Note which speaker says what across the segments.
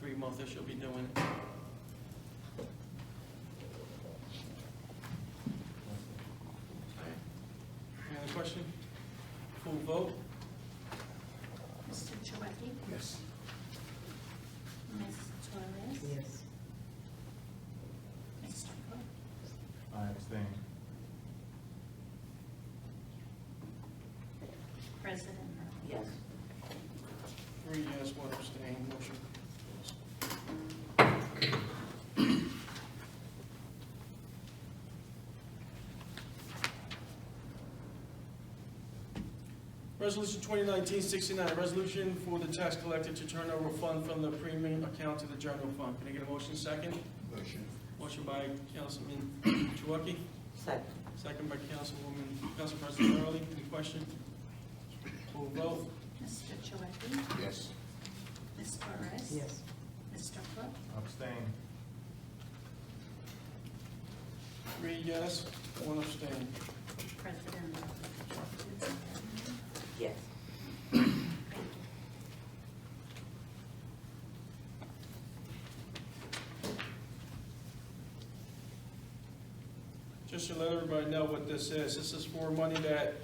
Speaker 1: three months that she'll be doing it. Any other question? Full vote?
Speaker 2: Mr. Chouwaki?
Speaker 3: Yes.
Speaker 2: Ms. Torres?
Speaker 4: Yes.
Speaker 2: Mr. Cook?
Speaker 3: I abstain.
Speaker 2: President Early?
Speaker 4: Yes.
Speaker 1: Three yes, one abstain, motion carries. Resolution 2019-69, resolution for the tax collector to turn over fund from the premium account to the general fund. Can I get a motion second?
Speaker 3: Motion.
Speaker 1: Motion by Councilman Chouwaki,
Speaker 4: Second.
Speaker 1: second by Councilwoman, Council President Early. Any question? Full vote?
Speaker 2: Mr. Chouwaki?
Speaker 3: Yes.
Speaker 2: Ms. Torres?
Speaker 4: Yes.
Speaker 2: Mr. Cook?
Speaker 3: Abstain.
Speaker 1: Three yes, one abstain.
Speaker 2: President Early?
Speaker 4: Yes.
Speaker 1: Just to let everybody know what this is, this is for money that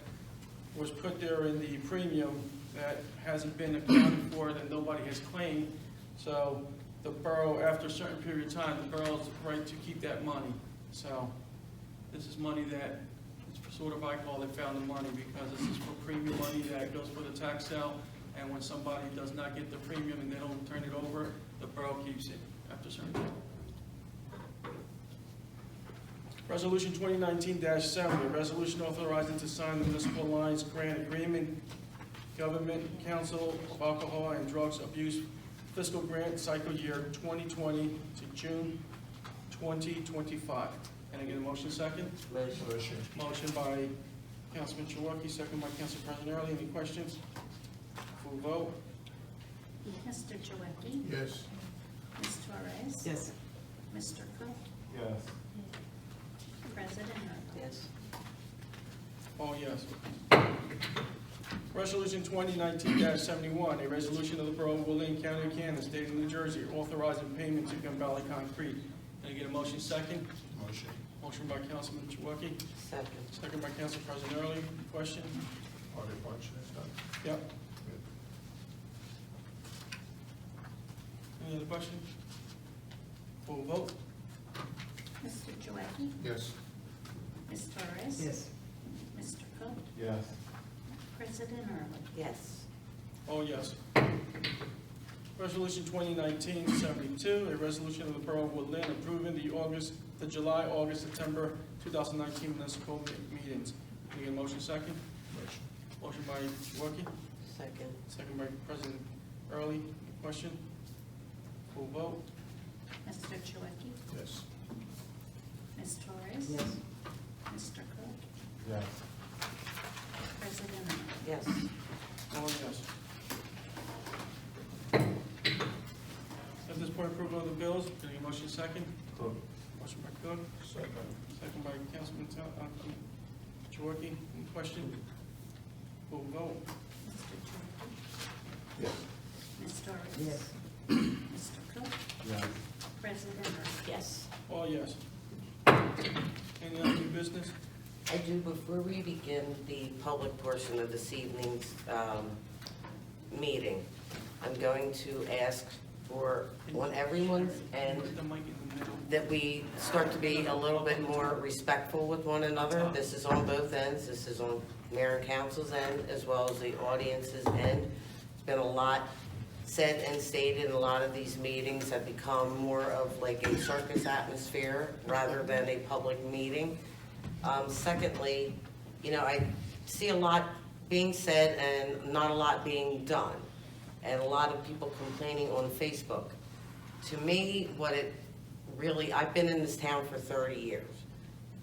Speaker 1: was put there in the premium that hasn't been accounted for, that nobody has claimed. So the borough, after a certain period of time, the borough's right to keep that money. So this is money that, it's sort of, I call it found the money, because this is for premium money that goes for the tax sale. And when somebody does not get the premium and they don't turn it over, the borough keeps it after a certain time. Resolution 2019-70, a resolution authorizing to sign the Municipal Alliance Grant Agreement, Government Council of Alcohol and Drugs Abuse Fiscal Grant Cycle Year 2020 to June 2025. Can I get a motion second?
Speaker 3: Motion.
Speaker 1: Motion by Councilman Chouwaki, second by Council President Early. Any questions? Full vote?
Speaker 2: Mr. Chouwaki?
Speaker 3: Yes.
Speaker 2: Ms. Torres?
Speaker 4: Yes.
Speaker 2: Mr. Cook?
Speaker 3: Yes.
Speaker 2: President Early?
Speaker 4: Yes.
Speaker 1: Oh, yes. Resolution 2019-71, a resolution of the Borough of Willian County, Kansas, State of New Jersey, authorizing payment to Gun Valley Concrete. Can I get a motion second?
Speaker 3: Motion.
Speaker 1: Motion by Councilman Chouwaki,
Speaker 4: Second.
Speaker 1: second by Council President Early. Question?
Speaker 3: Are they punching us up?
Speaker 1: Yep. Any other questions? Full vote?
Speaker 2: Mr. Chouwaki?
Speaker 3: Yes.
Speaker 2: Ms. Torres?
Speaker 4: Yes.
Speaker 2: Mr. Cook?
Speaker 3: Yes.
Speaker 2: President Early?
Speaker 4: Yes.
Speaker 1: Oh, yes. Resolution 2019-72, a resolution of the Borough of Woodland approving the August, the July, August, September 2019 municipal me- meetings. Can I get a motion second?
Speaker 3: Motion.
Speaker 1: Motion by Chouwaki,
Speaker 4: Second.
Speaker 1: second by President Early. Question? Full vote?
Speaker 2: Mr. Chouwaki?
Speaker 3: Yes.
Speaker 2: Ms. Torres?
Speaker 4: Yes.
Speaker 2: Mr. Cook?
Speaker 3: Yes.
Speaker 2: President Early?
Speaker 4: Yes.
Speaker 1: All yes. At this point, approval of the bills. Can I get a motion second?
Speaker 3: Cook.
Speaker 1: Motion by Cook,
Speaker 3: Second.
Speaker 1: Second by Councilman Tal, uh, um, Chouwaki, any question? Full vote,
Speaker 2: Mr. Chouwaki?
Speaker 3: Yes.
Speaker 2: Ms. Torres?
Speaker 4: Yes.
Speaker 2: Mr. Cook?
Speaker 3: Yes.
Speaker 2: President Early?
Speaker 4: Yes.
Speaker 1: all yes. Any other new business?
Speaker 4: I do, before we begin the public portion of this evening's um, meeting, I'm going to ask for, on everyone's end,
Speaker 1: Put the mic in the middle.
Speaker 4: that we start to be a little bit more respectful with one another. This is on both ends, this is on mayor and council's end, as well as the audience's end. It's been a lot said and stated, a lot of these meetings have become more of like a circus atmosphere rather than a public meeting. Um, secondly, you know, I see a lot being said and not a lot being done, and a lot of people complaining on Facebook. To me, what it really, I've been in this town for 30 years.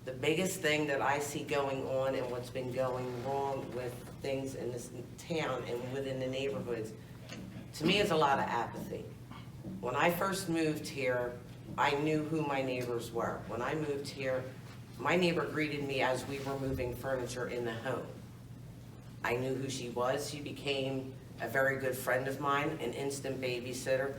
Speaker 4: The biggest thing that I see going on and what's been going wrong with things in this town and within the neighborhoods, to me, is a lot of apathy. When I first moved here, I knew who my neighbors were. When I moved here, my neighbor greeted me as we were moving furniture in the home. I knew who she was. She became a very good friend of mine, an instant babysitter.